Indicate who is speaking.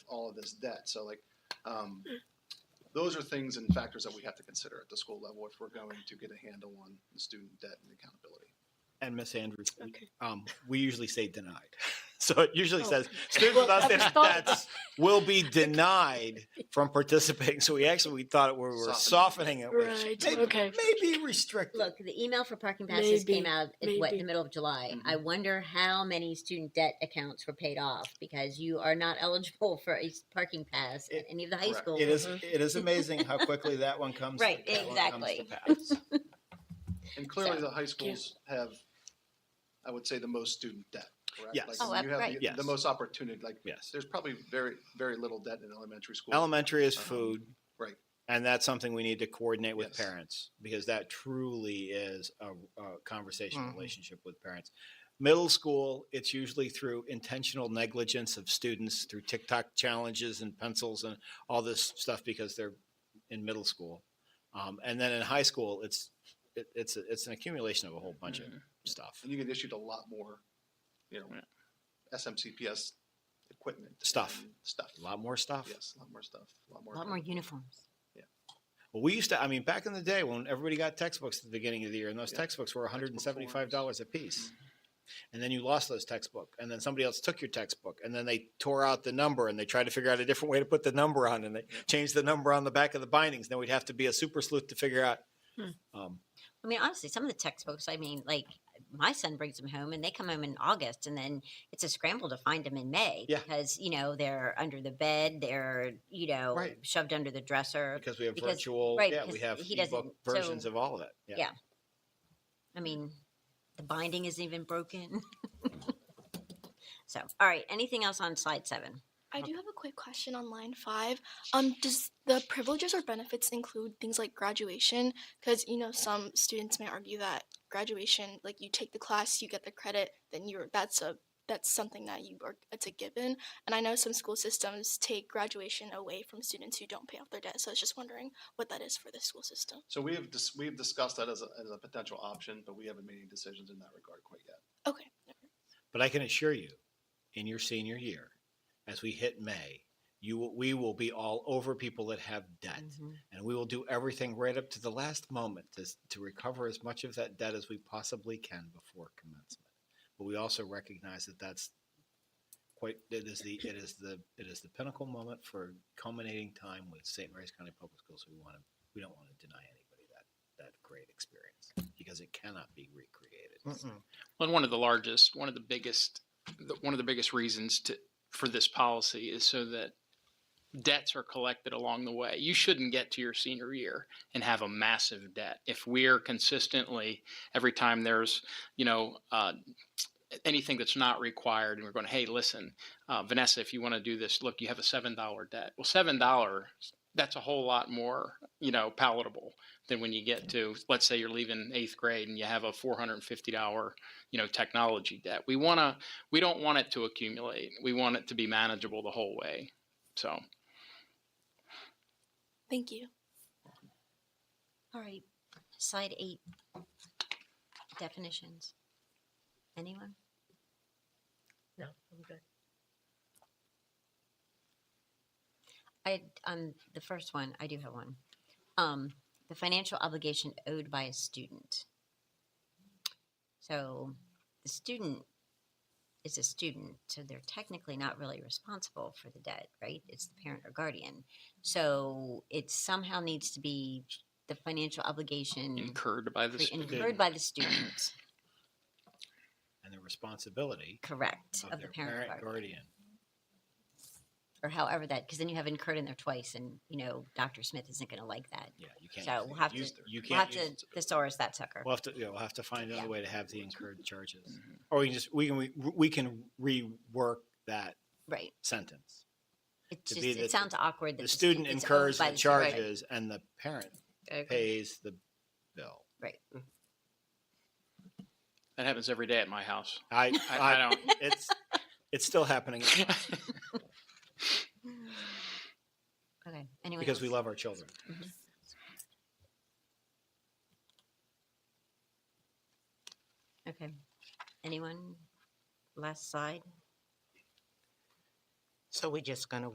Speaker 1: all of this debt. So like, um, those are things and factors that we have to consider at the school level if we're going to get a handle on the student debt and accountability.
Speaker 2: And Miss Andrews, we-
Speaker 3: Okay.
Speaker 2: um, we usually say denied. So it usually
Speaker 3: Oh.
Speaker 2: says students with
Speaker 3: Well, I
Speaker 2: outstanding
Speaker 3: thought-
Speaker 2: debts will be denied from participating. So we actually, we thought we were
Speaker 1: Softening
Speaker 2: softening it. with
Speaker 3: Right.
Speaker 2: Maybe-
Speaker 3: Okay.
Speaker 2: Maybe restricted.
Speaker 4: Look, the email for parking passes came
Speaker 3: Maybe,
Speaker 4: out in what, the
Speaker 3: maybe.
Speaker 4: middle of July.
Speaker 2: Mm-hmm.
Speaker 4: I wonder how many student debt accounts were paid off because you are not eligible for a s- parking pass at
Speaker 2: It-
Speaker 4: any of the high
Speaker 1: correct.
Speaker 4: schools.
Speaker 2: It is, it is amazing how quickly that one comes.
Speaker 4: Right,
Speaker 2: that one comes to pass.
Speaker 1: And clearly,
Speaker 4: So-
Speaker 1: the high schools have, I would say, the most student debt, correct?
Speaker 2: Yes.
Speaker 1: Like,
Speaker 4: Oh,
Speaker 1: you have
Speaker 4: right.
Speaker 1: the-
Speaker 2: Yes.
Speaker 1: The most opportunity, like,
Speaker 2: Yes.
Speaker 1: there's probably very, very little debt in elementary school.
Speaker 2: Elementary is
Speaker 1: Um,
Speaker 2: food.
Speaker 1: right.
Speaker 2: And that's something we need to coordinate with
Speaker 1: Yes.
Speaker 2: parents because that truly is a, a conversation
Speaker 1: Mm-hmm.
Speaker 5: Mhm.
Speaker 2: relationship with parents. Middle school, it's usually through intentional negligence of students through TikTok challenges and pencils and all this stuff because they're in middle school. Um, and then in high school, it's it, it's a, it's an accumulation of a whole bunch
Speaker 1: Mm-hmm.
Speaker 2: of stuff.
Speaker 1: And you get issued a lot more, you know, SMCPS equipment.
Speaker 2: Stuff.
Speaker 1: and Stuff.
Speaker 2: A lot more stuff.
Speaker 1: Yes, a lot more stuff, a lot more.
Speaker 4: A lot more uniforms.
Speaker 2: Well, we used to, I mean, back in the day when everybody got textbooks at the beginning of the year, and those
Speaker 1: Yeah.
Speaker 2: textbooks were
Speaker 1: Textbook
Speaker 2: $175 a piece. And then you lost those textbook, and then somebody else took your textbook, and then they tore out the number and they tried to figure out a different way to put the number on, and they changed the number on the back of the bindings. Then we'd have to be a super sleuth to figure out.
Speaker 3: Hmm.
Speaker 2: Um,
Speaker 4: I mean, honestly, some of the textbooks, I mean, like my son brings them home and they come home in August and then it's a scramble to find them in May
Speaker 2: Yeah.
Speaker 4: because, you know, they're under the bed, they're, you know,
Speaker 2: Right.
Speaker 4: shoved under the dresser.
Speaker 2: because we have
Speaker 4: Because-
Speaker 2: virtual,
Speaker 4: right,
Speaker 2: yeah,
Speaker 4: because
Speaker 2: we have
Speaker 4: he
Speaker 2: ebook
Speaker 4: doesn't-
Speaker 2: versions
Speaker 4: so-
Speaker 2: of all of it.
Speaker 4: yeah. I mean, the binding isn't even broken. so, all right. Anything else on slide seven?
Speaker 6: I do have a quick question on line five. Um, does the privileges or benefits include things like graduation? Because you know some students may argue that graduation, like you take the class, you get the credit, then you're that's a that's something that you are it's a given. And I know some school systems take graduation away from students who don't pay off their debt. So I was just wondering what that is for the school system.
Speaker 1: So we have, dis- we've discussed that as a, as a potential option, but we haven't made any decisions in that regard quite yet.
Speaker 6: Okay.
Speaker 2: But I can assure you, in your senior year, as we hit May, you will, we will be all over people that have debt. and we will do everything right up to the last moment to, s- to recover as much of that debt as we possibly can before commencement. But we also recognize that that's quite it is the it is the it is the pinnacle moment for culminating time with St. Mary's County Public Schools. We want to we don't want to deny anybody that that great experience because it cannot be recreated.
Speaker 5: Mm-mm.
Speaker 7: Well, one of the largest, one of the biggest, the, one of the biggest reasons to for this policy is so that debts are collected along the way. You shouldn't get to your senior year and have a massive debt. If we're consistently every time there's you know uh, anything that's not required, and we're going, hey, listen, uh, Vanessa, if you want to do this, look, you have a seven dollar debt. Well, seven dollars. That's a whole lot more, you know, palatable than when you get to, let's say you're leaving eighth grade and you have a four hundred and fifty dollar you know technology debt we want to we don't want it to accumulate we want it to be manageable the whole way so
Speaker 6: Thank you.
Speaker 4: All right. Slide eight definitions. Anyone?
Speaker 3: No, I'm good.
Speaker 4: I on the first one, I do have one. Um, the financial obligation owed by a student. So the student is a student, so they're technically not really responsible for the debt, right? It's the parent or guardian. So it somehow needs to be the financial obligation
Speaker 7: incurred by this
Speaker 4: cre- incurred by the student,
Speaker 2: And the responsibility
Speaker 4: correct,
Speaker 2: of,
Speaker 4: of the parent or guardian.
Speaker 2: guardian.
Speaker 4: or however that, because then you have incurred in there twice, and you know Dr. Smith isn't going to like that.
Speaker 2: Yeah, you can't.
Speaker 4: So
Speaker 2: use
Speaker 4: we'll
Speaker 2: the-
Speaker 4: have to-
Speaker 2: use the- you
Speaker 4: We'll have
Speaker 2: can't use
Speaker 4: to thesaurus that sucker.
Speaker 2: We'll have to, yeah, we'll have to find
Speaker 4: Yeah.
Speaker 2: another way to have the incurred charges. Or we can just, we can, re- we can rework that
Speaker 4: Right.
Speaker 2: sentence.
Speaker 4: It
Speaker 2: To
Speaker 4: just,
Speaker 2: be that the-
Speaker 4: it sounds awkward. that
Speaker 2: The student
Speaker 4: it's owned
Speaker 2: incurs
Speaker 4: by
Speaker 2: the
Speaker 4: student.
Speaker 2: charges and the parent
Speaker 4: I agree.
Speaker 2: pays the bill.
Speaker 7: that happens every day at my house
Speaker 2: I,
Speaker 7: i, I
Speaker 2: I,
Speaker 7: don't
Speaker 2: it's, it's still happening
Speaker 4: Okay, anyone
Speaker 2: because we
Speaker 4: else? Mm-hmm.
Speaker 2: love our children.
Speaker 4: Okay, anyone? Last slide?
Speaker 5: So we're just gonna